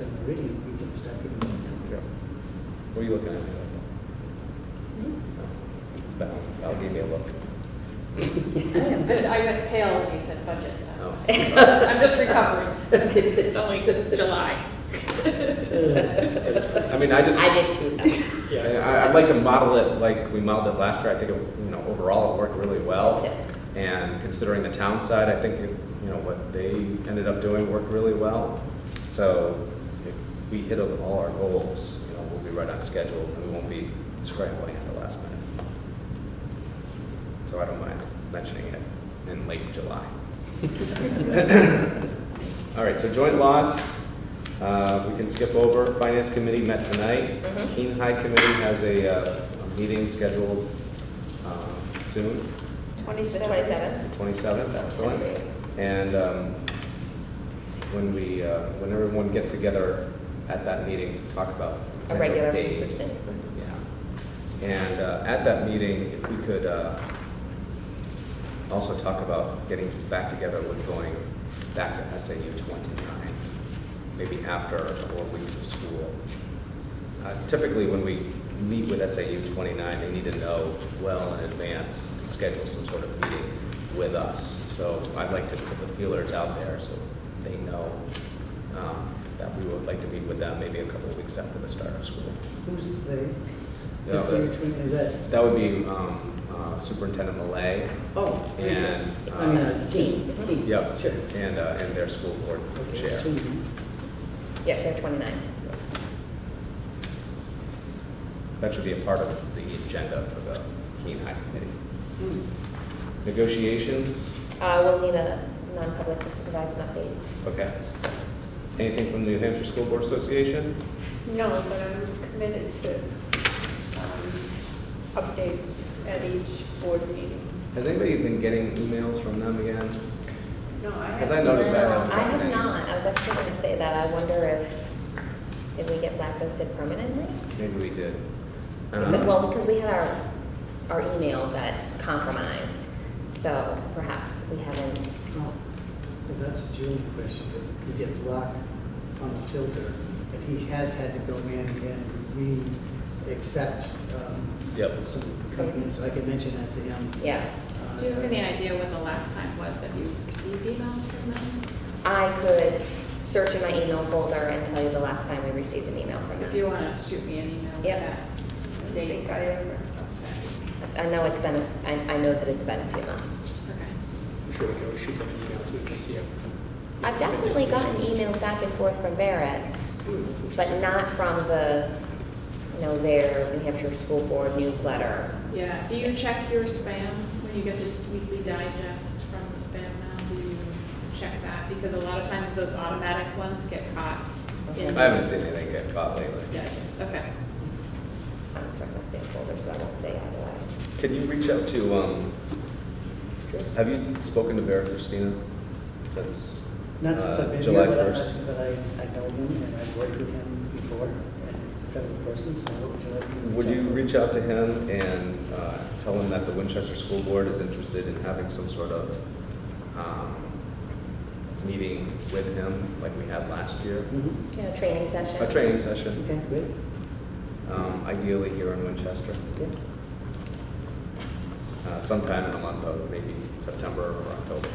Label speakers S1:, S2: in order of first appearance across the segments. S1: already, we can start giving them.
S2: Yeah. What are you looking at? me like that? I'll- I'll give you a look.
S3: I think it's good. I went pale when you said budget. That's
S2: Oh.
S3: why. I'm just recovering. It's only July.
S2: I mean, I just,
S4: I
S2: I-
S4: did too, though.
S2: I- I'd like to model it like we modeled it last year. I think, it, you know, overall, it worked really well.
S4: Okay.
S2: And considering the town side, I think, it- you know, what they ended up doing worked really well. So if we hit all our goals, you know, we'll be right on schedule and we won't be scrambling at the last minute. So I don't mind mentioning it in late July. All right, so joint loss, uh, we can skip over. Finance Committee met tonight.
S4: Mhm.
S2: Keene High Committee has a, uh, a meeting scheduled, um, soon,
S4: The
S2: the
S4: twenty-seventh?
S2: twenty-seventh, excellent. And, um, when we, uh, when everyone gets together at that meeting, talk about.
S4: A
S2: potential
S4: regular,
S2: days.
S4: consistent.
S2: Yeah. And, uh, at that meeting, if we could, uh, also talk about getting back together with going back to SAU twenty-nine, maybe after four weeks of school. Uh, Typically, when we meet with SAU twenty-nine, they need to know well in advance, schedule some sort of meeting with us. So I'd like to put the feelers out there so they know um, that we would like to meet with them maybe a couple of weeks after the start of school.
S1: Who's
S2: Yeah,
S1: they? Is
S2: but-
S1: it between, is that,
S2: That would be um, uh, Superintendent Malay
S1: oh.
S2: and.
S1: I mean,
S2: um,
S1: uh, Keene, Keene.
S2: Yep.
S1: Sure.
S2: And, uh, and their school board
S1: Okay,
S2: chair.
S1: soon.
S4: Yeah, they're twenty-nine.
S2: That should be a part of the agenda for the Keene High Committee.
S1: Hmm.
S2: Negotiations,
S4: Uh, we'll need a non-public just to provide some update.
S2: okay. Anything from the New Hampshire School Board Association?
S5: No, but I'm committed to um, updates at each board meeting.
S2: Has anybody been getting emails from them again?
S5: No, I
S2: Because I
S5: have-
S2: noticed I haven't.
S4: No, I
S2: gotten
S4: have
S2: any.
S4: not. I was actually gonna say that. I wonder if, did we get blacklisted permanently?
S2: Maybe we did. Um,
S4: Because- Well, because we had our, our email got compromised, so perhaps we haven't,
S1: Oh, Well, that's a Julian question, because it could get blocked on the filter, and he has had to go in and re-accept um,
S2: Yep.
S1: some companies, so I can mention that to him.
S4: yeah.
S1: Uh,
S3: Do you have any idea when the last time was that you received emails from them?
S4: I could search in my email folder and tell you the last time we received an email from
S3: If you
S4: them.
S3: want to shoot me an email with
S4: Yep.
S3: that
S5: I don't
S3: date.
S5: think I ever.
S4: I know it's been, a- I, I know that it's been a few months.
S3: Okay.
S6: I'm sure we can shoot them an email too, just see. if-
S4: I've definitely gotten emails back and forth from Barrett, but not from the, you know, their New Hampshire School Board newsletter.
S3: Yeah, do you check your spam when you get the weekly digest from the spam now? Do you check that? Because a lot of times those automatic ones get caught. in-
S2: I haven't seen anything get caught lately.
S3: Digest, okay.
S4: I'm checking my spam folder, so I won't say either way.
S2: Can you reach out to, um,
S4: It's true.
S2: have you spoken to Vera Christina since
S1: Not since
S2: uh,
S1: I've been here,
S2: July
S1: but I,
S2: 1st?
S1: but I, I know him, and I've worked with him before, and kind of a person, so. uh, would like me to
S2: Would
S1: check
S2: you
S1: for-
S2: reach out to him and uh, tell him that the Winchester School Board is interested in having some sort of um, meeting with him, like we had last year?
S1: Mhm.
S4: Yeah, training session.
S2: A training session,
S1: Okay, great,
S2: um, ideally here in Winchester,
S1: okay.
S2: uh, sometime in the month of maybe September or October.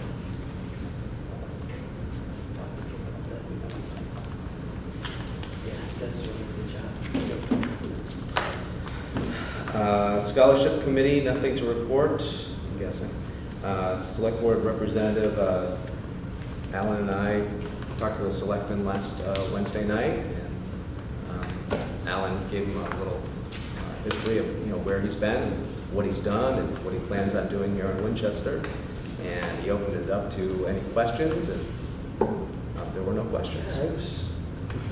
S1: Yeah, that's a really good job.
S2: Uh, Scholarship Committee, nothing to report, I'm guessing. Uh, Select Board Representative, uh, Alan and I talked to the selectmen last uh, Wednesday night, and um, Alan gave him a little uh, history of, you know, where he's been, and what he's done, and what he plans on doing here in Winchester, and he opened it up to any questions, and uh, there were no questions.
S1: I was-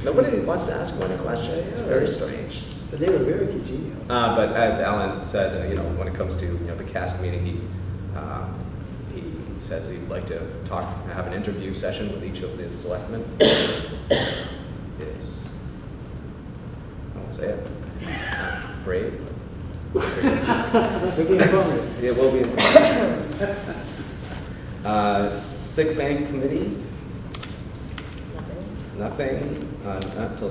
S2: Nobody wants to ask one a question, it's very strange.
S1: But they were very congenial.
S2: Uh, but as Alan said, uh, you know, when it comes to, you know, the cast meeting, he, uh, he says he'd like to talk, have an interview session with each of the selectmen. Is, I won't say it, brave.
S1: Pretty informative.
S2: It will be. important. Uh, sick bank committee,
S4: Nothing.
S2: nothing, uh, not till